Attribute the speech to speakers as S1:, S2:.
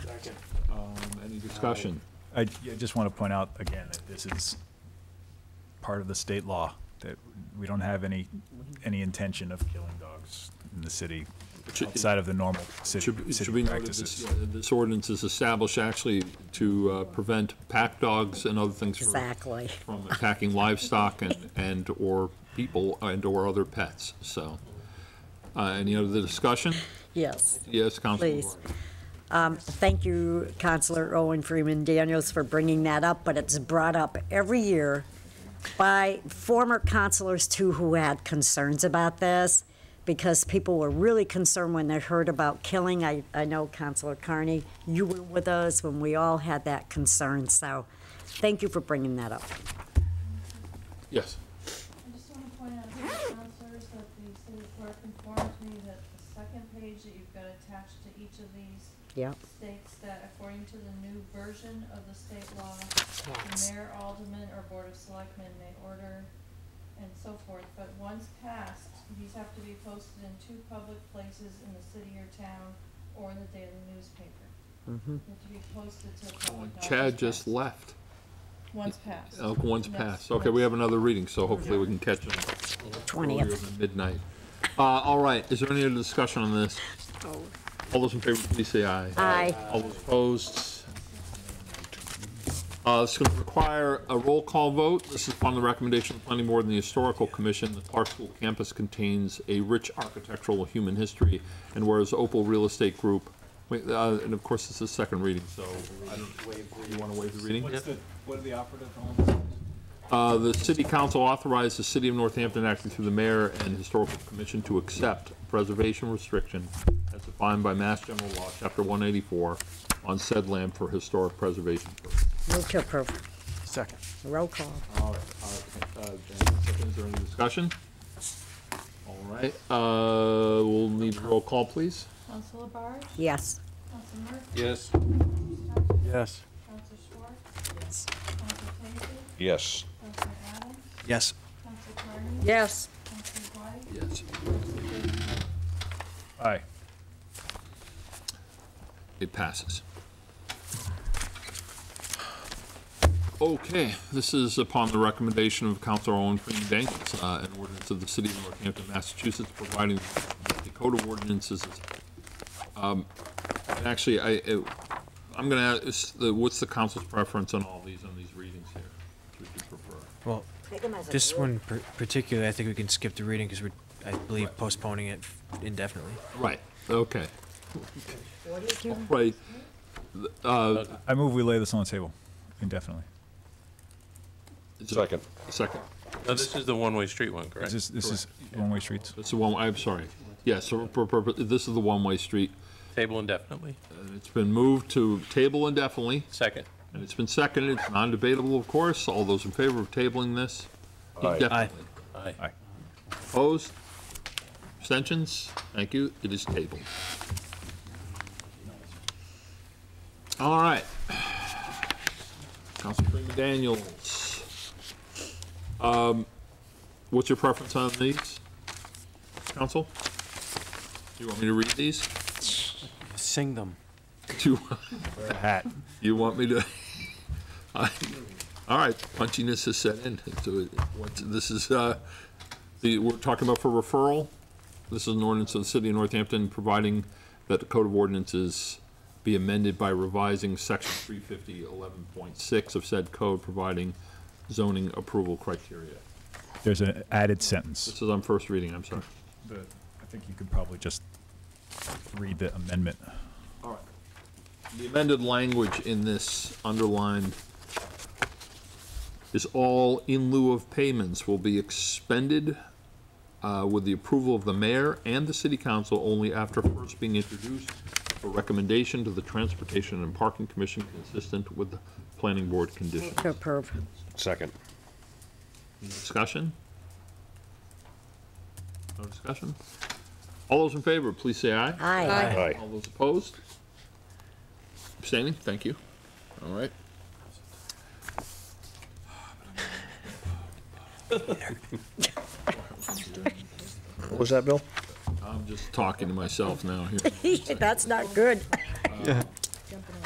S1: Second. Um, any discussion?
S2: I I just want to point out again that this is part of the state law, that we don't have any, any intention of killing dogs in the city
S1: Should-
S2: outside of the normal city
S1: Should, should we
S2: city
S1: note that this,
S2: practices.
S1: yeah, this ordinance is established actually to uh, prevent pack dogs and other things from,
S3: Exactly.
S1: from attacking livestock and, and/or people and/or other pets, so. Uh, any other discussion?
S3: Yes,
S1: Yes, Councilman
S3: please.
S1: Lawrence.
S3: Um, Thank you, Counselor Owen Freeman Daniels, for bringing that up, but it's brought up every year by former counselors too who had concerns about this, because people were really concerned when they heard about killing. I, I know Counselor Carney, you were with us when we all had that concern, so thank you for bringing that up.
S1: Yes,
S4: I just want to point out to the counselors that the city clerk informs me that the second page that you've got attached to each of these
S3: Yeah,
S4: states that according to the new version of the state law,
S3: Yes.
S4: the mayor, alderman, or board of selectmen may order and so forth, but once passed, these have to be posted in two public places in the city or town or in the daily newspaper.
S3: mm-hmm.
S4: They Have to be posted to the public knowledge.
S1: Chad just
S4: passed.
S1: left,
S4: Once passed.
S1: Uh, one's
S4: Next.
S1: passed, okay, we have another reading, so hopefully we can catch him.
S3: 20th.
S1: Midnight. Uh, all right, is there any other discussion on this? All those in favor, please say aye.
S3: Aye.
S1: All those opposed? Uh, it's gonna require a roll call vote. This is upon the recommendation of the planning board and the historical commission. The Clarksville campus contains a rich architectural human history, and whereas Opal Real Estate Group, wait, uh, and of course, this is second reading, so I don't, you wanna waive the reading?
S2: What are the operative on?
S1: Uh, The city council authorized the city of Northampton acting through the mayor and historical commission to accept preservation restriction as defined by Mass General Law, Chapter 184, on said land for historic preservation. purposes.
S5: Oh,
S3: Move to approve.
S2: Second.
S3: Roll call.
S1: All right, all right, uh, Jan, Is there any discussion? All right, uh, we'll need a roll call, please.
S4: Counselor Barge,
S3: Yes.
S4: Counselor Murphy,
S1: Yes.
S2: Yes.
S4: Counselor Schwartz, Counselor Casey,
S6: Yes.
S4: Counselor Adams,
S2: Yes.
S4: Counselor Carney,
S3: Yes.
S4: Counselor White,
S1: Yes.
S2: Aye.
S1: It passes. Okay, this is upon the recommendation of Counselor Owen Freeman Daniels, uh, an ordinance of the city of Northampton, Massachusetts, providing that the code of ordinances. is- Um, and actually, I, it- I'm gonna, ask is the- what's the council's preference on all these, on these readings here? Which would you prefer?
S5: Well, this one par- particularly, I think we can skip the reading because we're, I believe, postponing it indefinitely.
S1: Right, okay. Right, uh,
S2: I move we lay this on the table indefinitely.
S1: is it-
S6: Second.
S1: second.
S7: Now, this is the one-way street one, correct?
S2: This is, this is one-way streets.
S1: It's the one, I'm sorry. Yes, so per- per- per- this is the one-way street.
S7: Table indefinitely?
S1: It's been moved to table indefinitely,
S7: Second.
S1: and it's been seconded. It's non-debatable, of course. All those in favor of tabling this?
S6: Aye.
S1: Indefinitely.
S7: Aye.
S2: Aye.
S1: Opposed? Abstentions? Thank you. It is tabled. All right. Council Freeman Daniels. Um, What's your preference on these, council? Do you want me to read these?
S5: Sing them.
S1: Do you?
S2: Hat.
S1: You want me to? I- All right, punchiness has set in. So it- what's- this is, uh, the, we're talking about for referral. This is an ordinance of the city of Northampton providing that the code of ordinances be amended by revising section 350.11.6 of said code, providing zoning approval criteria.
S2: There's an added sentence.
S1: This is on first reading, I'm sorry.
S2: The- I think you could probably just read the amendment.
S1: All right. The amended language in this underlined is all in lieu of payments will be expended uh, with the approval of the mayor and the city council only after first being introduced for recommendation to the Transportation and Parking Commission consistent with the planning board condition.
S3: To approve.
S6: Second.
S1: Discussion? No discussion? All those in favor, please say aye.
S3: Aye.
S6: Aye.
S1: All those opposed? Abstaining? Thank you. All right.
S6: What was that, Bill?
S1: I'm just talking to myself now here.
S3: That's not good.